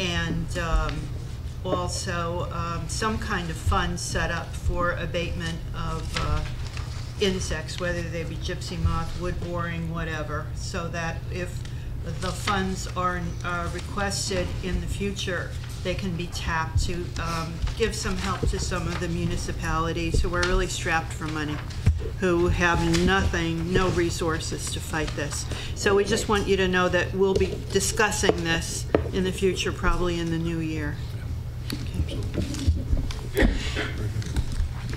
and um, also um, some kind of fund set up for abatement of uh, insects, whether they be gypsy moth, wood boring, whatever, so that if the funds are uh, requested in the future, they can be tapped to um, give some help to some of the municipalities who are really strapped for money, who have nothing, no resources to fight this. So we just want you to know that we'll be discussing this in the future, probably in the new year.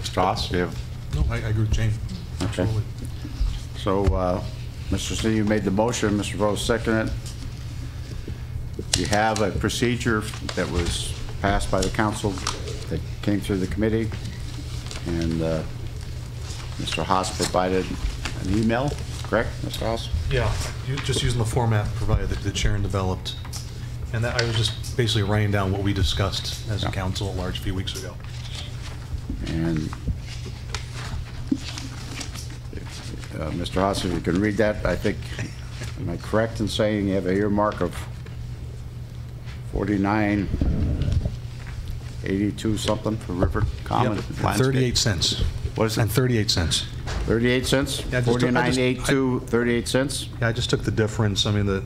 Strauss, you have, No, I I agree with Jane. Okay. Absolutely. so, uh, Mr. C, you made the motion, Mr. Rose seconded it. You have a procedure that was passed by the council that came through the committee, and uh, Mr. Haas provided an email, correct, Mr. Haas? Yeah, you- just using the format provided that the chair developed. And that, I was just basically writing down what we discussed as a Yeah. council at large a few weeks ago. And uh, Mr. Haas, if you can read that, I think, am I correct in saying you have a earmark of 49, 82 something for River Common? Yep, landscape? 38 cents. What is it? And 38 cents. 38 cents? Yeah, I just took- I 49, just- I- 82, 38 cents? Yeah, I just took the difference, I mean, the,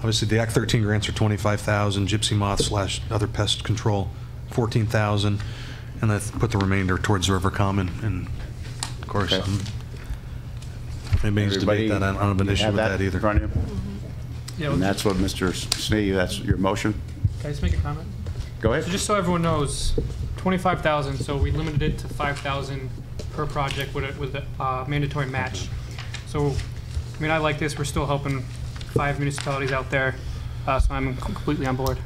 obviously, the Act 13 grants are 25,000, gypsy moth slash other pest control, 14,000, and I put the remainder towards River Common, and of course, Okay. I'm- anybody's debate that, I don't have an Everybody issue with have that either. in front of you? Yeah, well, And that's what, Mr. Snee, that's your motion? can I just make a comment? Go So ahead. just so everyone knows, twenty-five thousand, so we limited it to five thousand per project with a, with a uh, mandatory match. So, I mean, I like this, we're still helping five municipalities out there, uh, so I'm completely on board.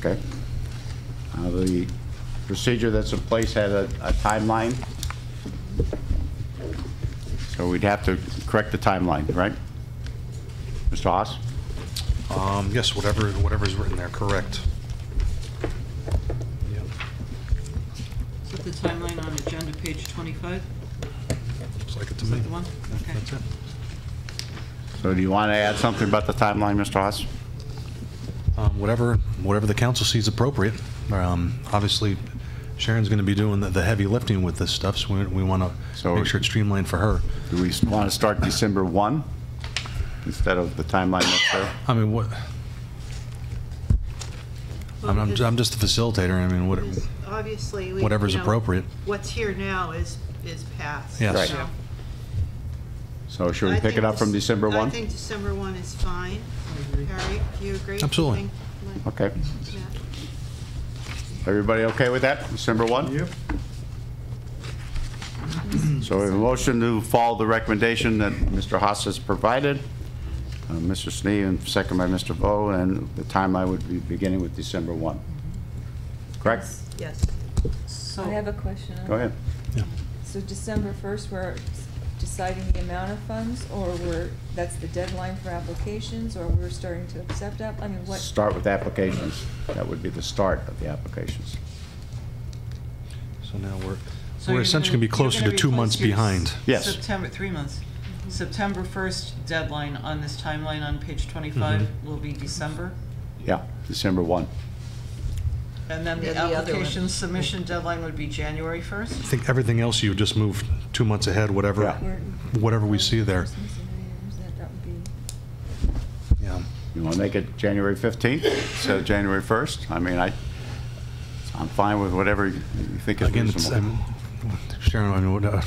Okay. Uh, The procedure that's in place had a a timeline, so we'd have to correct the timeline, right? Mr. Haas? Um, yes, whatever, whatever's written there, correct. Yep. Is that the timeline on agenda page 25? Looks like it to Is me. that the one? Okay. That's it. So do you want to add something about the timeline, Mr. Haas? Um, Whatever, whatever the council sees appropriate. Um, Obviously, Sharon's going to be doing the- the heavy lifting with this stuff, so we- we want to So- make sure it's streamlined for her. Do we want to start December 1 instead of the timeline that's there? I mean, what, I'm- I'm ju- I'm just the facilitator, I mean, what, Because Obviously, we. Whatever's you know, appropriate. What's here now is, is passed. Yes. Right. so- So should we I pick it think up from this- December 1? I think December 1 is fine. Harry, do you agree? Absolutely. Think- like- Okay. yeah. Everybody okay with that, December 1? Yep. So we have a motion to follow the recommendation that Mr. Haas has provided, uh, Mr. Snee, and second by Mr. Bo, and the timeline would be beginning with December 1. Correct? Yes. I Oh. have a question. on Go that. ahead. So December 1st, we're deciding the amount of funds, or we're, that's the deadline for applications, or we're starting to accept app, I mean, what? Start with applications. That would be the start of the applications. so now we're, So we're you're essentially going to be you're closer gonna to two replace months your behind. Yes. September, three months. September 1st deadline on this timeline on page 25 will be December. Yeah, December 1. And then the Then the other one. application submission deadline would be January I 1st. think everything else, you just move two months ahead, whatever, Yeah. whatever we see there. Christmas and New Year's, that- that would be- Yeah. You want to make it January 15th instead of January 1st? I mean, I, I'm fine with whatever you think is Again, it's, reasonable. I'm- Sharon, I mean, what, uh,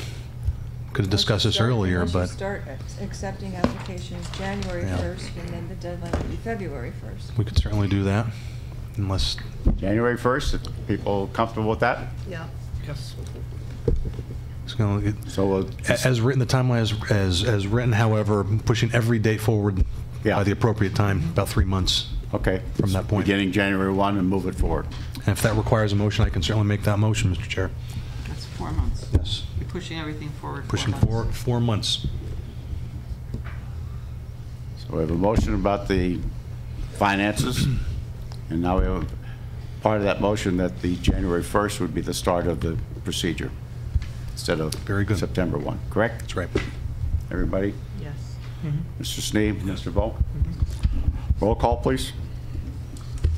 could have discussed this Once you start- earlier, once you but. start ac- accepting applications January Yeah. 1st, and then the deadline would be February 1st. We could certainly do that, unless, January 1st, if people comfortable with that? Yeah. Yes. it's gonna- it- So we'll a- as written, the timeline is, as, as written, however, pushing every date forward Yeah. by the appropriate time, about three months. Okay. From that point. Beginning January 1 and move it forward. And if that requires a motion, I can certainly make that motion, Mr. Chair. That's four months. Yes. You're pushing everything forward. Pushing four, forward. four months. So we have a motion about the finances, and now we have part of that motion that the January 1st would be the start of the procedure instead of Very good. September 1, correct? That's right. Everybody? Yes. Mr. Sneed? Mr. Volk? Roll call, please.